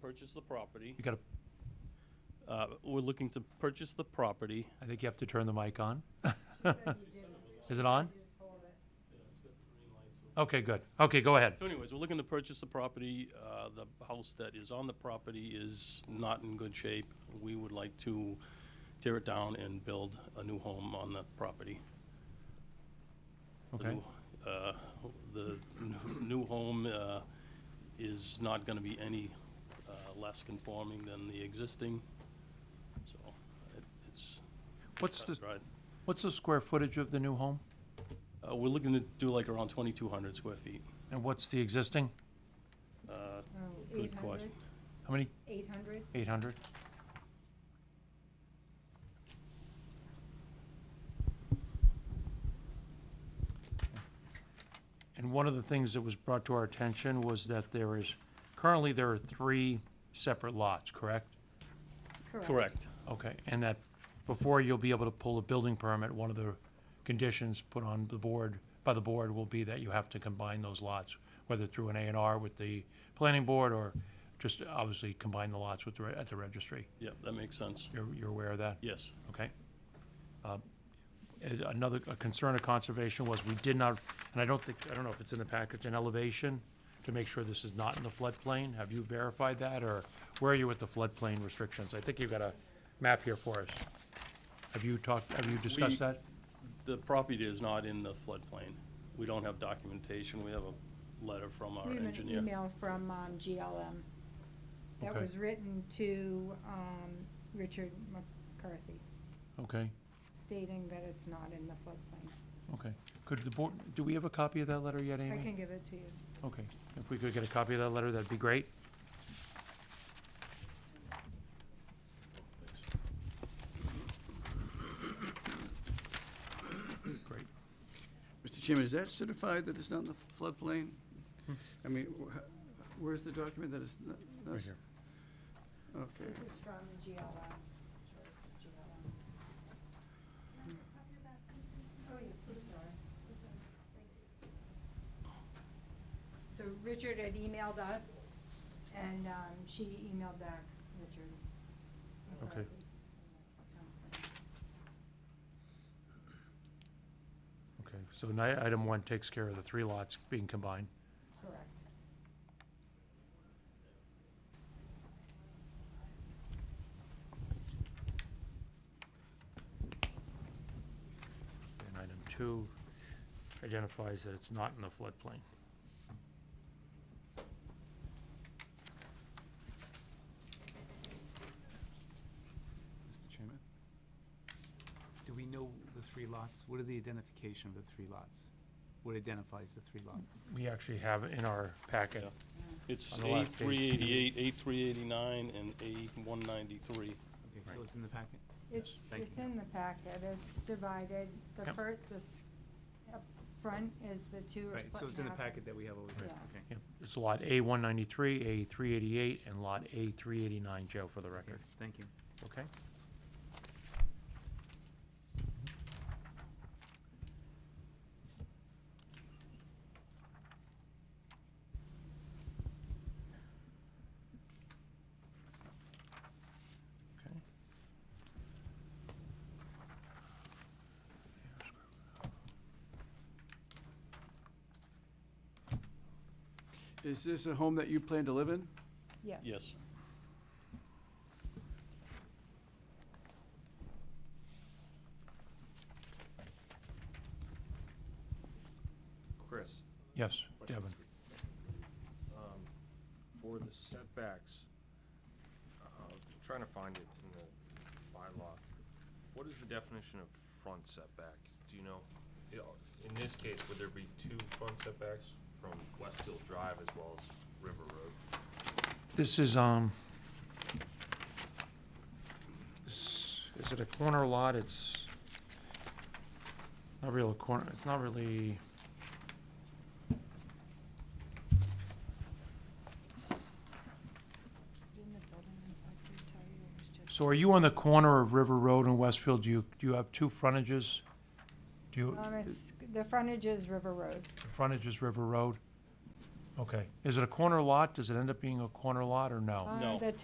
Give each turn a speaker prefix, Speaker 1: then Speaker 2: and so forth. Speaker 1: purchase the property.
Speaker 2: You gotta,
Speaker 1: Uh, We're looking to purchase the property.
Speaker 2: I think you have to turn the mic on. Is it on? Okay, good. Okay, go ahead.
Speaker 1: So anyways, we're looking to purchase the property. Uh, The house that is on the property is not in good shape. We would like to tear it down and build a new home on the property. The
Speaker 2: Okay.
Speaker 1: new- uh, The new- new home uh, is not going to be any uh, less conforming than the existing, so it- it's...
Speaker 2: What's the,
Speaker 1: Right.
Speaker 2: what's the square footage of the new home?
Speaker 1: Uh, We're looking to do like around 2,200 square feet.
Speaker 2: And what's the existing?
Speaker 1: Uh, Good question.
Speaker 2: How many?
Speaker 3: Oh, Eight hundred?
Speaker 2: Eight hundred? And one of the things that was brought to our attention was that there is, currently there are three separate lots, correct?
Speaker 1: Correct.
Speaker 2: Okay, and that before you'll be able to pull a building permit, one of the conditions put on the board, by the board, will be that you have to combine those lots, whether through an A and R with the planning board or just obviously combine the lots with, the re- at the registry.
Speaker 1: Yep, that makes sense.
Speaker 2: You're, you're aware of that?
Speaker 1: Yes.
Speaker 2: Okay. Um, and Another a concern of conservation was we did not, and I don't think, I don't know if it's in the package, an elevation to make sure this is not in the floodplain. Have you verified that, or where are you with the floodplain restrictions? I think you've got a map here for us. Have you talked, have you
Speaker 1: We-
Speaker 2: discussed that?
Speaker 1: The property is not in the floodplain. We don't have documentation. We have a letter from our
Speaker 3: We have an
Speaker 1: engineer.
Speaker 3: email from um, GLM that
Speaker 2: Okay.
Speaker 3: was written to um, Richard McCarthy
Speaker 2: Okay,
Speaker 3: stating that it's not in the floodplain.
Speaker 2: okay. Could the board, do we have a copy of that letter yet, Amy?
Speaker 3: I can give it to you.
Speaker 2: Okay, if we could get a copy of that letter, that'd be great. Great.
Speaker 4: Mr. Chairman, is that certified that it's not in the floodplain? I mean, wh- where's the document that it's not? not
Speaker 2: Right
Speaker 4: s-
Speaker 2: here.
Speaker 4: Okay.
Speaker 3: This is from GLM, Choice of GLM. Oh, yeah, I'm sorry. So Richard had emailed us, and um, she emailed back Richard.
Speaker 2: Okay. Okay, so ni- item one takes care of the three lots being combined.
Speaker 3: Correct.
Speaker 2: And item two identifies that it's not in the floodplain.
Speaker 5: Mr. Chairman? Do we know the three lots? What are the identification of the three lots? What identifies the three lots?
Speaker 2: We actually have it in our packet.
Speaker 1: It's
Speaker 2: On the left, Dave.
Speaker 1: A388, A389, and A193.
Speaker 5: Okay, so it's in the packet?
Speaker 3: It's,
Speaker 5: Thank
Speaker 3: it's
Speaker 5: you.
Speaker 3: in the packet, it's divided, the
Speaker 2: Yep.
Speaker 3: fir, this, up front is the two are split
Speaker 5: Right, so it's in the
Speaker 3: half.
Speaker 5: packet that we have over here,
Speaker 3: Yeah.
Speaker 5: okay.
Speaker 2: Yep, It's lot A one ninety-three, A three eighty-eight, and lot A three eighty-nine, Joe, for the record.
Speaker 5: Okay, Thank you.
Speaker 2: Okay. Okay.
Speaker 4: Is this a home that you plan to live in?
Speaker 3: Yes.
Speaker 1: Yes.
Speaker 6: Chris,
Speaker 2: Yes,
Speaker 6: Question.
Speaker 2: Devin.
Speaker 6: um, for the setbacks, uh, I'm trying to find it in the bylaw. What is the definition of front setback? Do you know? You know, In this case, would there be two front setbacks from West Hill Drive as well as River Road?
Speaker 2: This is, um, s- is it a corner lot? It's not real a corner, it's not really.
Speaker 3: Didn't the building inspector tell you it was just?
Speaker 2: So are you on the corner of River Road and Westfield? Do you, do you have two frontages? Do you,
Speaker 3: Uh. Um, it's, the frontage is River Road,
Speaker 2: the frontage is River Road? Okay. Is it a corner lot? Does it end up being a corner lot or no?
Speaker 3: Uh,
Speaker 1: No.
Speaker 3: the